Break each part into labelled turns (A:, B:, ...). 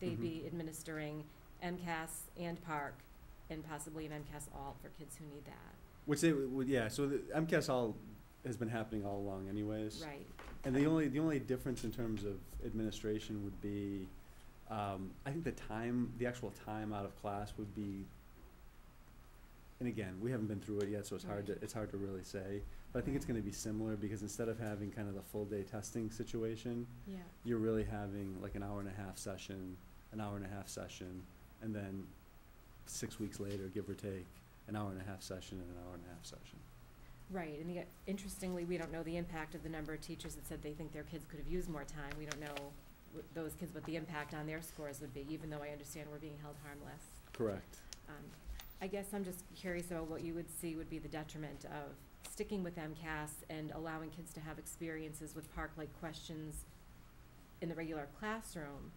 A: they'd be administering MCAS and PARC, and possibly an MCAS alt for kids who need that,
B: Which they would, yeah, so the MCAS all has been happening all along anyways.
A: right?
B: And the only, the only difference in terms of administration would be, um, I think the time, the actual time out of class would be, and again, we haven't been through it yet, so it's hard to,
A: Right.
B: it's hard to really say. But I think it's gonna be similar, because instead of having kind of the full day testing situation,
A: Yeah.
B: you're really having like an hour and a half session, an hour and a half session, and then six weeks later, give or take, an hour and a half session and an hour and a half session.
A: Right, and yet, interestingly, we don't know the impact of the number of teachers that said they think their kids could have used more time. We don't know wh- those kids, what the impact on their scores would be, even though I understand we're being held harmless.
B: Correct.
A: Um, I guess I'm just curious about what you would see would be the detriment of sticking with MCAS and allowing kids to have experiences with park-like questions in the regular classroom,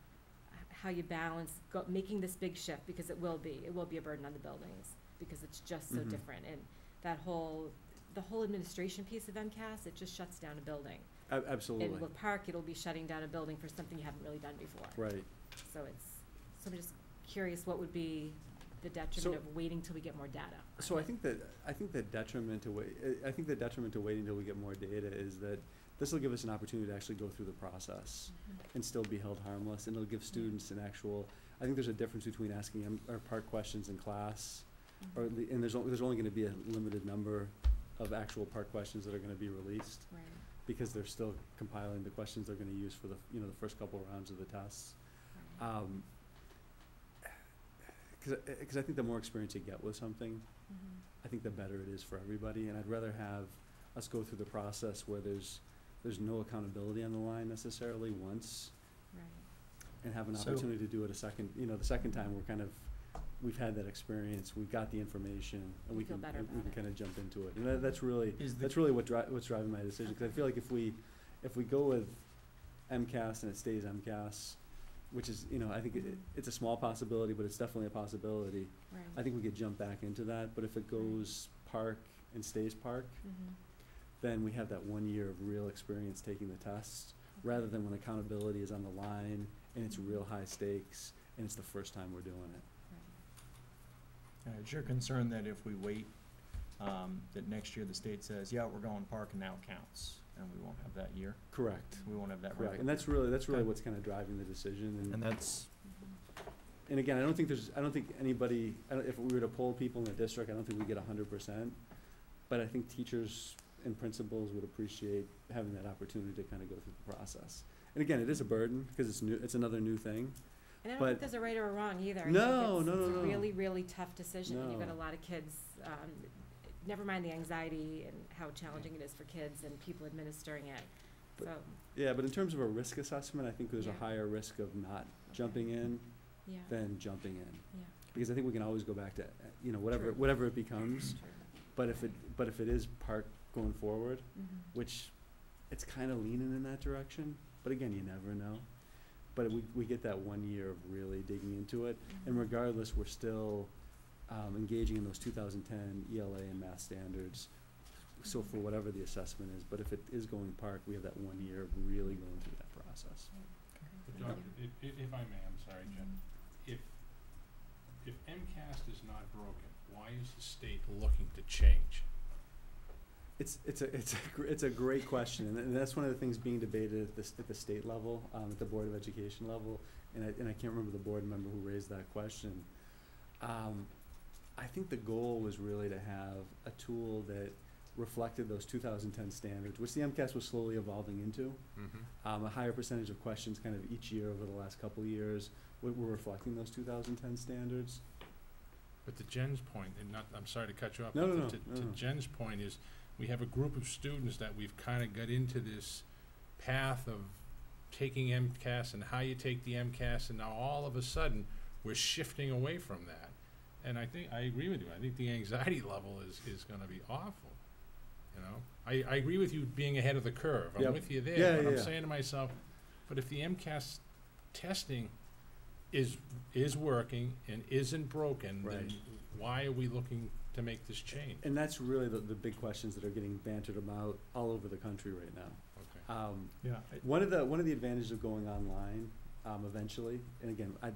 A: h- how you balance go, making this big shift, because it will be, it will be a burden on the buildings, because it's just so
B: Mhm.
A: different, and that whole, the whole administration piece of MCAS, it just shuts down a building.
B: A- absolutely.
A: And with park, it'll be shutting down a building for something you haven't really done before.
B: Right.
A: So it's, so I'm just curious, what would be the
B: So-
A: detriment of waiting till we get more data? on
B: So I
A: it?
B: think that, I think the detriment to wait, I think the detriment to waiting until we get more data is that this will give us an opportunity to actually go through the process
A: Mm-hmm.
B: and still be held harmless, and it'll give students an actual, I think there's a difference between asking M- or part questions in class, or, at lea- and there's, on- there's only gonna be a limited number of actual part questions that are gonna be released.
A: Right,
B: because they're still compiling the questions they're gonna use for the, you know, the first couple rounds of the tests.
A: right.
B: Um 'cause cause, I- cause I think the more experience you get with something,
A: Mhm.
B: I think the better it is for everybody, and I'd rather have us go through the process where there's, there's no accountability on the line necessarily once,
A: Right,
B: and have an
C: So-
B: opportunity to do it a second, you know, the second time, we're kind of, we've had that experience, we've got the information, and we
A: You feel
B: can,
A: better
B: and we
A: about
B: can
A: it.
B: kinda jump into it, and that, that's really,
C: Is the,
B: that's really what dri- what's driving my decision, because I feel like if we, if we go with MCAS and it stays MCAS, which is, you know, I think it,
A: Mhm.
B: it's a small possibility, but it's definitely a possibility. I
A: right.
B: think we could jump back into that, but if it goes park and stays park,
A: Mhm.
B: then we have that one year of real experience taking the tests, rather than when accountability is on the line and it's real high stakes and it's the first time we're doing it.
A: Right.
C: uh, is your concern that if we wait, um, that next year the state says, yeah, we're going park and now it counts, and we won't have that year,
B: Correct.
C: we won't have that revenue?
B: Correct, and that's really, that's really
C: Okay.
B: what's kind of driving the decision and.
C: And that's,
A: Mhm.
B: And again, I don't think there's, I don't think anybody, I don't, if we were to poll people in the district, I don't think we'd get a hundred percent. But I think teachers and principals would appreciate having that opportunity to kind of go through the process. And again, it is a burden, because it's new, it's another new thing.
A: And I don't think
B: But-
A: there's a right or a wrong either. I think
B: No,
A: it's-
B: no, no,
A: It's a
B: no.
A: really, really tough decision, and you've got a
B: No.
A: lot of kids, um, never mind the anxiety and how challenging it is for kids and people administering it,
B: But-
A: so,
B: Yeah, but in terms of a risk assessment, I think there's a
A: Yeah.
B: higher risk of not jumping in
A: yeah, yeah,
B: than jumping in.
A: yeah.
B: Because I think we can always go back to, uh, you know, whatever,
A: True.
B: whatever it becomes.
A: True.
B: But if it, but if it is park going forward,
A: Mhm.
B: which it's kind of leaning in that direction. But again, you never know. But we, we get that one year of really digging into it. And
A: Mhm.
B: regardless, we're still um, engaging in those 2010 ELA E and math standards. So for whatever the assessment is, but if it is going park, we have that one year of really going through that process.
D: But John, if, if if I may, I'm sorry, Jen, if, if MCAS is not broken, why is the state looking to change?
B: It's, it's a, it's a, gr- it's a great question, and, and that's one of the things being debated at the, s- at the state level, um, at the Board of Education level, and I, and I can't remember the board member who raised that question. Um, I think the goal was really to have a tool that reflected those two thousand ten standards, which the MCAS was slowly evolving into.
D: Mm-hmm.
B: Um, a higher percentage of questions kind of each year over the last couple of years, were, were reflecting those two thousand ten standards.
D: But to Jen's point, and not, I'm sorry to cut you off.
B: No, no,
D: but to-
B: no,
D: To
B: no, no.
D: to Jen's point is, we have a group of students that we've kinda got into this path of taking MCAS and how you take the MCAS, and now all of a sudden, we're shifting away from that. And I think, I agree with you, I think the anxiety level is, is gonna be awful, you know? I, I agree with you being ahead of the curve, I'm
B: Yep.
D: with you
B: Yeah,
D: there, but
B: yeah,
D: I'm
B: yeah.
D: saying to myself, but if the MCAS testing is, is working and isn't broken, then
B: Right.
D: why are we looking to make this change?
B: And that's really the, the big questions that are getting bantered about all over the country right now.
D: Okay.
B: Um,
C: yeah, I-
B: One of the one of the advantages of going online um, eventually. And again, I,